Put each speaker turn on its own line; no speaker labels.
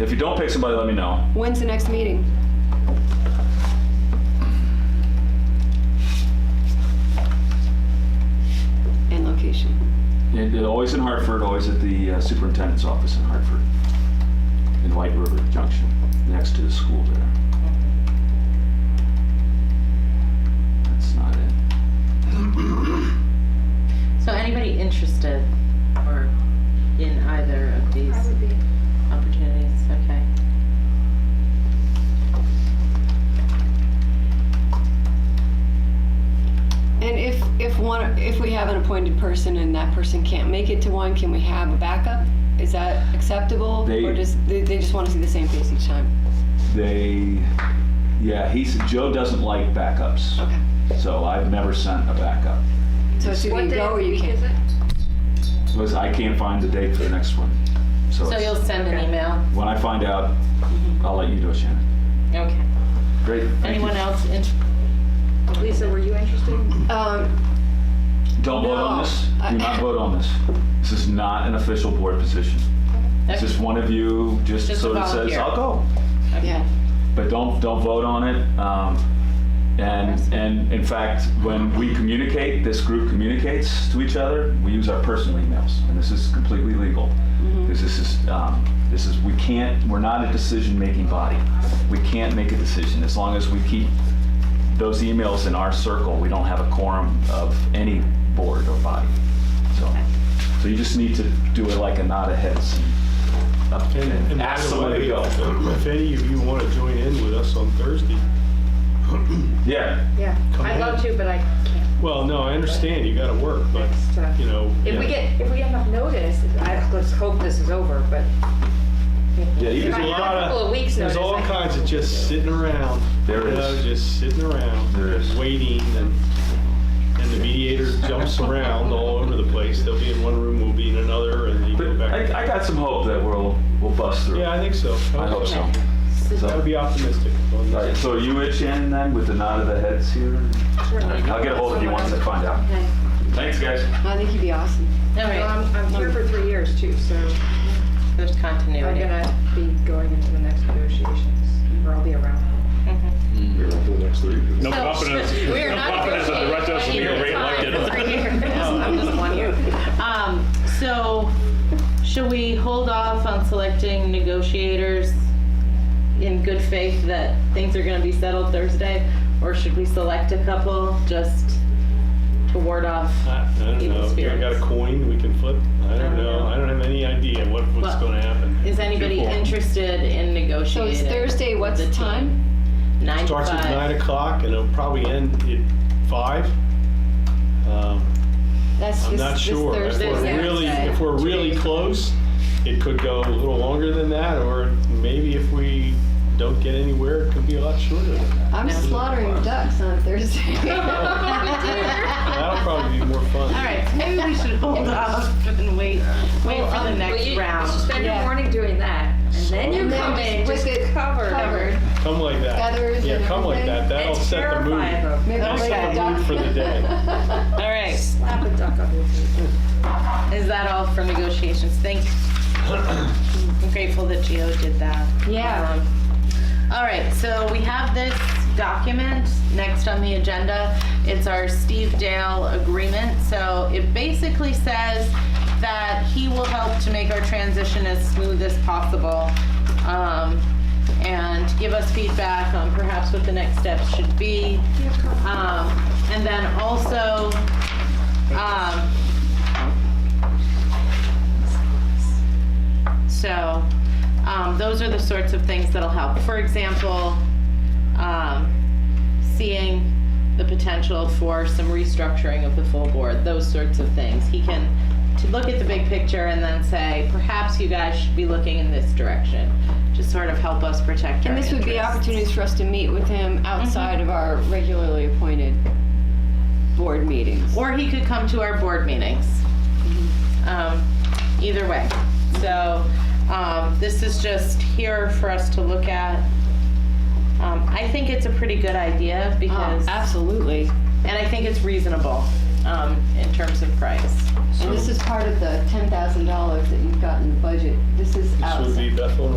If you don't pick somebody, let me know.
When's the next meeting? And location.
It, it- always in Hartford, always at the uh, superintendent's office in Hartford, in White River Junction, next to the school there. That's not it.
So anybody interested or in either of these
I would be.
opportunities? Okay.
And if, if one, if we have an appointed person and that person can't make it to one, can we have a backup? Is that acceptable?
They-
Or just, they, they just want to see the same face each time?
They, yeah, he's, Joe doesn't like backups,
Okay.
so I've never sent a backup.
So it's either
What
you
day
go
of
or
the
you
week is
can't.
it?
Because I can't find the date for the next one. So
So
it's-
you'll send an
Okay.
email?
when I find out, I'll let you know, Shannon.
Okay.
Great. thank you.
Anyone else? in-
Lisa, were you interested?
Um,
Don't vote on
No.
this. Do not vote on this. This is not an official board position. It's just one of you, just
Just a
so that says,
volunteer.
I'll go.
Okay.
yeah.
But don't, don't vote on it. Um, And, and in fact, when we communicate, this group communicates to each other, we use our personal emails. And this is completely legal. This is- this is, um, this is, we can't, we're not a decision-making body. We can't make a decision. As long as we keep those emails in our circle, we don't have a quorum of any board or body. So, so you just need to do it like a nod of heads and up-
And- and
and
by
ask
the
somebody to
way,
go.
If any of you want to join in with us on Thursday,
Yeah.
Yeah,
Come
I'd love
in.
to, but I can't.
well, no, I understand you got to work, but,
It's tough.
you know,
If we
Yeah.
get, if we have enough notice, I, let's hope this is over, but.
Yeah, you
If
just-
I
a
had
lot
a
of-
couple of weeks notice.
there's all
I-
kinds of just sitting around.
There
you
is.
know, Just sitting around.
There is.
Waiting, and, and the mediator jumps around all over the place. They'll be in one room, we'll be in another, and you
But
go back.
I, I got some hope that we'll we'll bust through.
Yeah, I think so.
I hope so.
I
So,
would be optimistic. on
all right,
this.
so are you it, Shannon, then, with the nod of the heads here? I'll get a hold of you once I find out.
Okay.
Thanks, guys.
I think you'd be awesome.
All
Well,
right.
I'm, I'm here for three years too, so
There's
I'm
continuity.
gonna be going into the next negotiations, or I'll be around.
No
Mm-hmm. So-
confidence,
We are
no
not
confidence that the rest of us will be
negotiating
reelected.
at any time. Three years. I'm just one year. Um, so should we hold off on selecting negotiators in good faith that things are gonna be settled Thursday? Or should we select a couple just to ward off?
I I don't
Evil
know. You
spirits.
got a coin we can flip? I
don't
don't
know.
know. I don't have any idea what, what's
Well,
going to happen.
Is anybody
Q4.
interested in
So
negotiating?
it's Thursday,
with
what's
the
the
team?
time?
Nine to
Starts at
five.
nine o'clock and it'll probably end at five. Um,
That's
I'm
this,
not
this
sure. If
Thursday.
we're
Thursday.
really,
Thursday.
if we're really close, it could go a little longer than that, or maybe if we don't get anywhere, it could be a lot shorter than that.
I'm slaughtering ducks on Thursday.
That'll probably be more fun.
All right, maybe we should hold off and wait, um, wait for the
Well,
next
you-
round.
You should spend
Yeah.
your morning doing that, and then you
And then
come
just
in
with
just
it
covered.
Covered.
Come like that.
Feathers
Yeah,
and
come like
everything.
that. That'll
It's
set the mood.
terrifying though.
Maybe I'll
That's
bring
the
a duck.
mood for the day.
All right, is
Slap a duck up with you.
that all for negotiations? Thank you. I'm grateful that Gio did that.
Yeah.
Um, All right, so we have this document next on the agenda. It's our Steve Dale agreement. So it basically says that he will help to make our transition as smooth as possible um, and give us feedback on perhaps what the next steps should be. Um, And then also, um, So, um, those are the sorts of things that'll help. For example, um, seeing the potential for some restructuring of the full board, those sorts of things. He can to look at the big picture and then say, perhaps you guys should be looking in this direction to sort of help us protect our
And this would be
interests.
opportunities for us to meet with him outside of our regularly appointed board meetings.
Or he could come to our board meetings. Um, Either way. So um, this is just here for us to look at. Um, I think it's a pretty good idea
Oh,
because, and
Absolutely.
I think it's reasonable um, in terms of price.
And this is part of the ten thousand dollars that you've got in the budget. This is
This would
outside.
be Bethel and